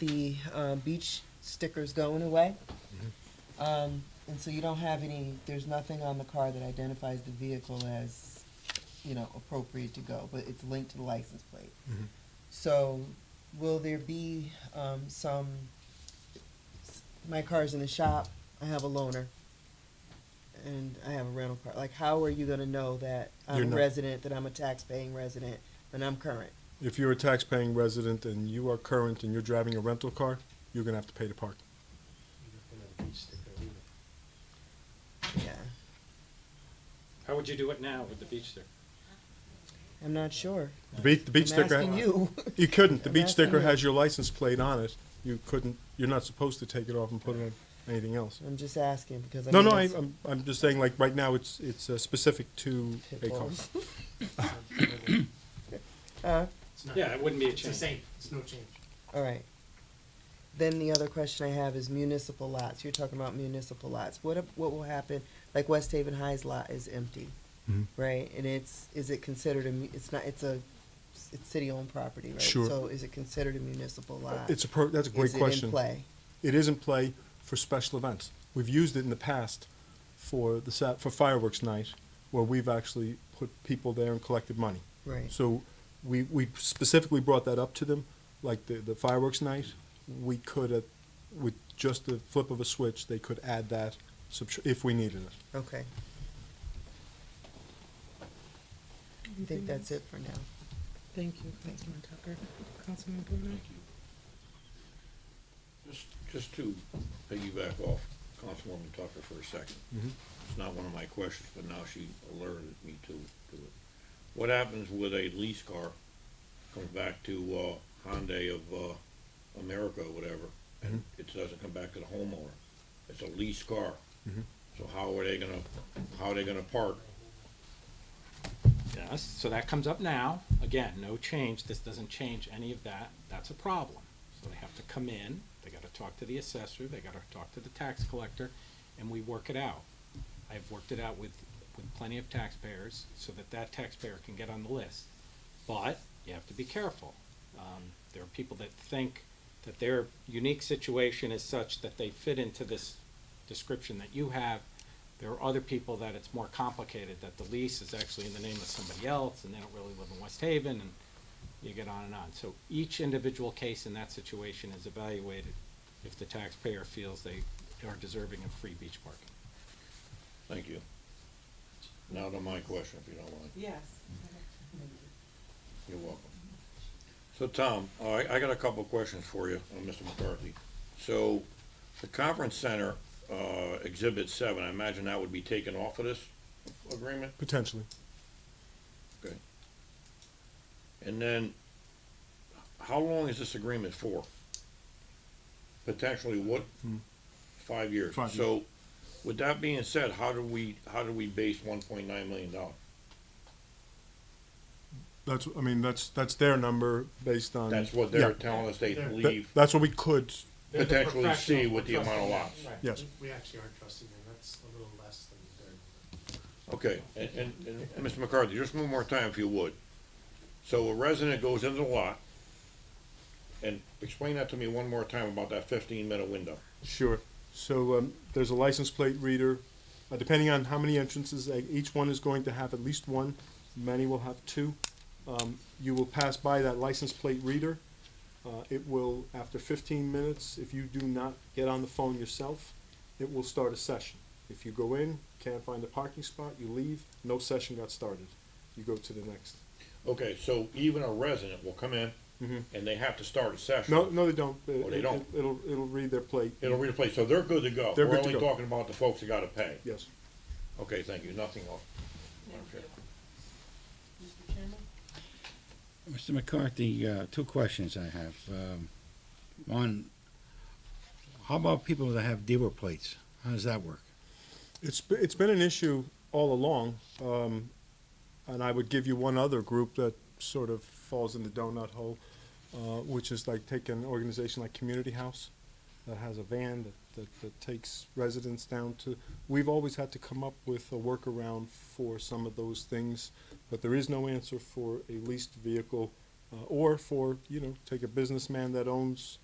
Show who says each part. Speaker 1: the uh, beach sticker's going away.
Speaker 2: Mm-hmm.
Speaker 1: Um, And so you don't have any, there's nothing on the car that identifies the vehicle as, you know, appropriate to go, but it's linked to the license plate.
Speaker 2: Mm-hmm.
Speaker 1: So will there be um, some, my car's in the shop, I have a loaner, and I have a rental car. Like, how are you gonna know that
Speaker 2: You're
Speaker 1: I'm a
Speaker 2: not-
Speaker 1: resident, that I'm a tax-paying resident, and I'm current?
Speaker 2: If you're a tax-paying resident and you are current and you're driving a rental car, you're gonna have to pay to park.
Speaker 1: Yeah,
Speaker 3: How would you do it now with the beach sticker?
Speaker 1: I'm not sure.
Speaker 2: The beach, the beach
Speaker 1: I'm
Speaker 2: sticker.
Speaker 1: asking you.
Speaker 2: You couldn't. The
Speaker 1: I'm
Speaker 2: beach
Speaker 1: asking
Speaker 2: sticker
Speaker 1: you.
Speaker 2: has your license plate on it. You couldn't, you're not supposed to take it off and put it on anything else.
Speaker 1: I'm just asking because I
Speaker 2: No,
Speaker 1: mean,
Speaker 2: no, I,
Speaker 1: it's-
Speaker 2: I'm, I'm just saying, like, right now, it's, it's uh, specific to a car.
Speaker 1: Pitbulls.
Speaker 4: It's not-
Speaker 3: Yeah, it wouldn't be a
Speaker 4: It's the
Speaker 3: change.
Speaker 4: same, it's no change.
Speaker 1: Uh, All right. Then the other question I have is municipal lots. You're talking about municipal lots. What if- what will happen? Like West Haven High's lot is empty,
Speaker 2: Mhm.
Speaker 1: right? And it's is it considered a? mu- It's not. It's a. It's city-owned property, right?
Speaker 2: Sure.
Speaker 1: So is it considered a municipal lot?
Speaker 2: It's a pro, that's a great
Speaker 1: is It in
Speaker 2: question.
Speaker 1: play.
Speaker 2: It is in play for special events. We've used it in the past for the, sa- for fireworks night, where we've actually put people there and collected money.
Speaker 1: Right.
Speaker 2: So we, we specifically brought that up to them, like the, the fireworks night, we could, uh, with just the flip of a switch, they could add that subtr- if we needed it.
Speaker 1: Okay. I think that's it for now.
Speaker 5: Thank you, Councilman Tucker. Councilman Bruno?
Speaker 6: Mm-hmm. Just, just to piggyback off Councilwoman Tucker for a second. It's not one of my questions, but now she alerted me to, to it. What happens with a lease car, comes back to, uh, Hyundai of, uh, America or whatever, and it doesn't come back to the homeowner? It's a lease car. So how are they gonna, how are they gonna park?
Speaker 3: Yes, so that comes up now. Again, no change. This doesn't change any of that. That's a problem. So they have to come in, they gotta talk to the assessor, they gotta talk to the tax collector, and we work it out. I've worked it out with, with plenty of taxpayers so that that taxpayer can get on the list. But you have to be careful. Um, there are people that think that their unique situation is such that they fit into this description that you have. There are other people that it's more complicated, that the lease is actually in the name of somebody else and they don't really live in West Haven and you get on and on. So each individual case in that situation is evaluated if the taxpayer feels they are deserving of free beach parking.
Speaker 6: Thank you. Now to my question, if you don't mind.
Speaker 5: Yes.
Speaker 6: You're welcome. So Tom, all right, I got a couple of questions for you, uh, Mr. McCarthy. So the conference center, uh, exhibit seven, I imagine that would be taken off of this agreement?
Speaker 2: Potentially.
Speaker 6: Okay. And then, how long is this agreement for? Potentially what? Five years.
Speaker 2: Hmm. Five years.
Speaker 6: So with that being said, how do we, how do we base one point nine million dollars?
Speaker 2: That's, I mean, that's, that's their number based on.
Speaker 6: That's what
Speaker 2: Um, Yeah.
Speaker 6: they're telling us they
Speaker 4: They're-
Speaker 2: That-
Speaker 6: believe
Speaker 2: That's what we could,
Speaker 3: They're the
Speaker 6: potentially see
Speaker 3: professional
Speaker 6: with the amount of lots.
Speaker 3: Right.
Speaker 2: yes.
Speaker 4: We- We actually are trusting them, that's a little less than they're.
Speaker 6: Okay, and, and, and Mr. McCarthy, just one more time if you would. So a resident goes into the lot, and explain that to me one more time about that fifteen minute window.
Speaker 2: Sure. So um, there's a license plate reader. Uh, depending on how many entrances, uh, each one is going to have at least one. Many will have two. Um, you will pass by that license plate reader. Uh, it will, after 15 minutes, if you do not get on the phone yourself, it will start a session. If you go in, can't find a parking spot, you leave, no session got started. You go to the next.
Speaker 6: Okay, so even a resident will come in,
Speaker 2: Mhm.
Speaker 6: and they have to start a session.
Speaker 2: No, no, they don't.
Speaker 6: Oh, they don't.
Speaker 2: It, will it'll read their plate.
Speaker 6: It'll read the place, so they're good to go.
Speaker 2: They're
Speaker 6: We're
Speaker 2: good to
Speaker 6: only
Speaker 2: go.
Speaker 6: talking about the folks that gotta pay.
Speaker 2: Yes.
Speaker 6: Okay, thank you, nothing else. Madam Chair.
Speaker 7: Mr. McCarthy, uh, two questions I have. Um, One, how about people that have dealer plates? How does that work?
Speaker 2: It's, be- it's been an issue all along, um, and I would give you one other group that sort of falls in the donut hole, uh, which is like take an organization like Community House that has a van that, that, that takes residents down to, we've always had to come up with a workaround for some of those things, but there is no answer for a leased vehicle, uh, or for, you know, take a businessman that owns